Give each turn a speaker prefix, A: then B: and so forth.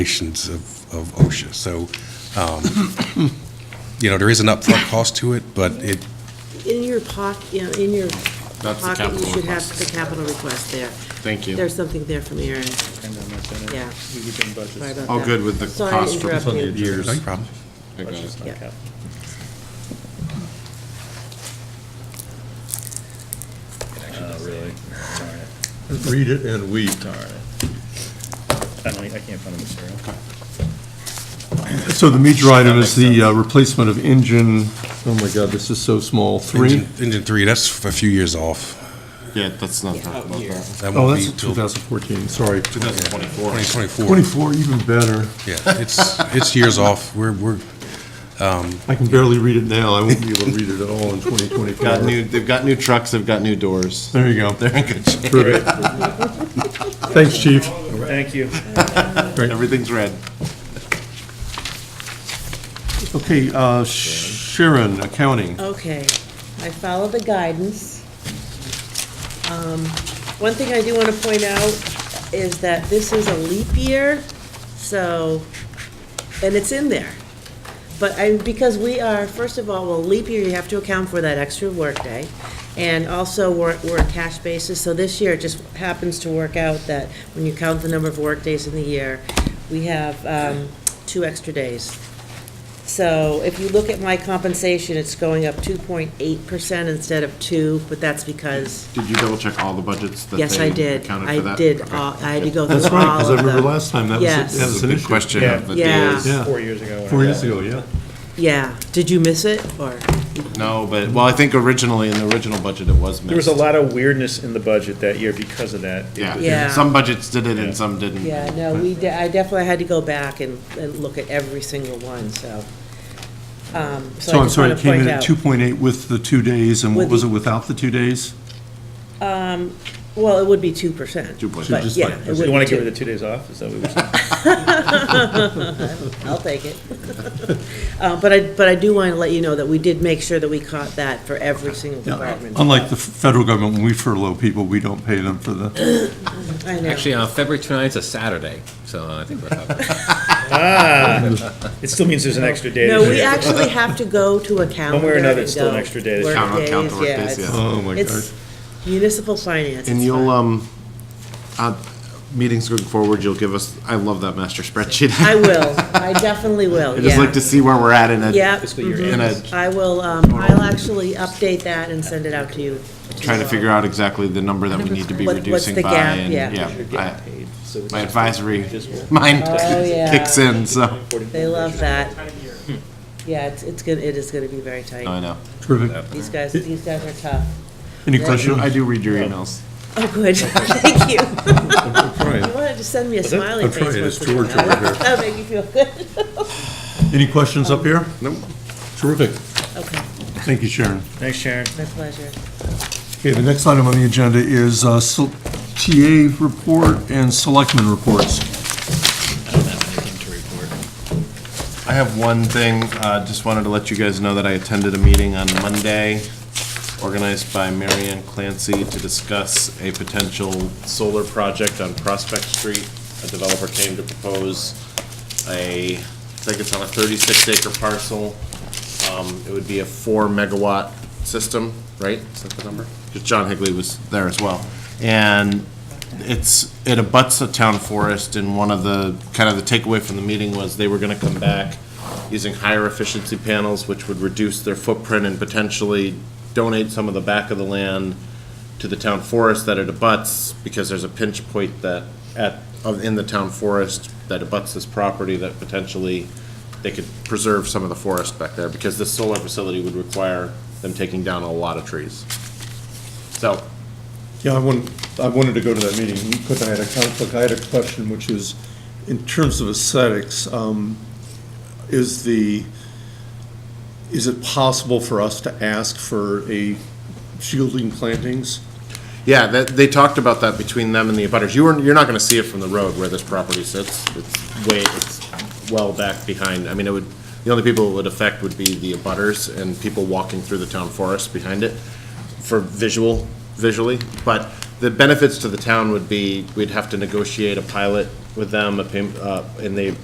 A: regulations of, of OSHA. So, um, you know, there is an upfront cost to it, but it,
B: In your pocket, you know, in your
C: That's the
B: pocket, you
C: capital
B: should have
C: request.
B: the capital request there.
C: Thank you.
B: There's something there from Aaron.
D: And then that's in it.
B: Yeah.
D: We would do budgets.
B: Sorry about
C: All
B: that.
C: good with the
B: Sorry to
C: cost for-
B: interrupt
C: It's on
B: you.
A: no problem.
C: I got
D: Budgets,
C: it.
D: not
B: Yeah.
D: capital.
E: Oh, really? Darn it.
F: Read it and weep.
E: Darn it. I don't, I can't find the material.
F: So the major item is the uh, replacement of engine, oh my God, this is so small, three?
A: Engine- Engine three, that's a few years off.
C: Yeah, that's not talking about that.
A: That
F: Oh,
A: won't be
F: that's
A: till
F: 2014, sorry.
C: 2024.
A: 2024.
F: 24, even better.
A: Yeah, it's, it's years off. We're, we're,
F: I can barely read it now, I won't be able to read it at all in 2024.
C: Got new, they've got new trucks, they've got new doors.
F: There you go.
C: They're in good shape.
F: Terrific. Thanks, chief.
E: Thank you.
C: Everything's red.
F: Okay, uh, Sharon, accounting.
B: Okay, I followed the guidance. Um, One thing I do want to point out is that this is a leap year, so, and it's in there. But I, because we are, first of all, well, leap year, you have to account for that extra workday. And also, we're, we're a cash basis, so this year it just happens to work out that when you count the number of workdays in the year, we have um, two extra days. So if you look at my compensation, it's going up 2.8% instead of 2, but that's because,
C: Did you double check all the budgets that they
B: yes, I did.
C: accounted for that?
B: I did, uh,
C: Okay.
B: all- I had to go through all of
F: That's
B: them.
F: right, because I remember last time, that was,
B: Yes.
C: This
F: that was
C: is
F: an
C: a big
F: issue.
C: question of the
B: Yeah.
C: days.
F: Yeah.
E: Four years ago.
F: Four years ago, yeah.
B: Yeah, did you miss it, or?
C: No, but, well, I think originally, in the original budget, it was missed.
E: There was a lot of weirdness in the budget that year because of that.
C: Yeah,
B: Yeah.
C: some budgets did it and some didn't.
B: Yeah, no, we, de- I definitely had to go back and, and look at every single one, so. um,
F: So
B: I
F: I'm
B: just
F: sorry,
B: want to
F: it came
B: point
F: in
B: out-
F: at 2.8 with the two days, and what
B: With
F: was
B: the-
F: it without the two days?
B: Um, Well, it would be 2%.
C: 2%.
B: But,
F: Just
B: yeah,
F: like-
B: it
F: You
B: would
E: You want
B: be
E: to give her
B: 2.
E: the two days off? Is that what we were saying?
B: I'll take it. Uh, But I, but I do want to let you know that we did make sure that we caught that for every single
F: Yeah,
B: department.
F: unlike the federal government, when we furlough people, we don't pay them for the,
B: I know.
G: Actually, uh, February 29th is a Saturday, so uh, I think we're covered.
E: It still means there's an extra day.
B: No,
E: this
B: we
E: year.
B: actually have to go to a calendar.
E: One way or another, it's
B: and go
E: still an extra day.
B: work
C: Count- count the
B: days,
C: work
B: yeah,
C: days,
B: it's-
C: yeah.
F: oh my gosh.
B: It's municipal finance.
C: And
B: it's
C: you'll,
B: fine.
C: um, uh, meetings going forward, you'll give us, I love that master spreadsheet.
B: I will, I definitely will,
C: I
B: yeah.
C: just like to see where we're at in a,
B: Yeah.
E: Fiscal year
C: in a,
E: ends.
B: I will, um, I'll actually update that and send it out to you.
C: trying to figure out exactly the number that we need to be
B: What- what's
C: reducing
B: the
C: by.
B: gap?
C: and,
B: Yeah.
E: You're
C: Yeah, I-
E: getting paid, so it's
C: my
E: just
C: advisory
E: visible.
C: mind
B: Oh, yeah.
C: kicks in, so,
B: They love that. Yeah, it's, it's gonna, it is gonna be very tight.
C: I know.
F: Terrific.
B: These guys, these guys are tough.
F: Any
C: I do, I
F: questions?
C: do read your emails.
B: Oh, good, thank you. You
F: Right.
B: wanted to send me a
E: it?
B: smiley
F: I'm
B: face once
F: trying,
B: in a
F: it's George
B: while.
F: over here.
B: That'll make you feel good.
F: Any questions up here?
C: Nope.
F: Terrific.
B: Okay,
F: Thank you, Sharon.
E: Thanks, Sharon.
B: my pleasure.
F: Okay, the next item on the agenda is uh, sel- TA report and selectmen reports.
C: I have one thing, uh, just wanted to let you guys know that I attended a meeting on Monday organized by Marianne Clancy to discuss a potential solar project on Prospect Street. A developer came to propose a, I think it's on a thirty-six acre parcel. Um, it would be a four megawatt system, right? Is that the number? Because John Higley was there as well. And it's, it abuts the town forest, and one of the, kind of the takeaway from the meeting was they were gonna come back using higher efficiency panels, which would reduce their footprint and potentially donate some of the back of the land to the town forest that it abuts, because there's a pinch point that, at, of- in the town forest that abuts this property that potentially they could preserve some of the forest back there, because this solar facility would require them taking down a lot of trees. So,
F: Yeah, I wanted, I wanted to go to that meeting because I had a conflict. I had a question, which is, in terms of aesthetics, um, is the, is it possible for us to ask for a shielding plantings?
C: Yeah, that, they talked about that between them and the abutters. You were, you're not gonna see it from the road where this property sits. It's way, it's well back behind. I mean, it would, the only people it would affect would be the abutters and people walking through the town forest behind it for visual, visually. But the benefits to the town would be, we'd have to negotiate a pilot with them, a payment, uh, and they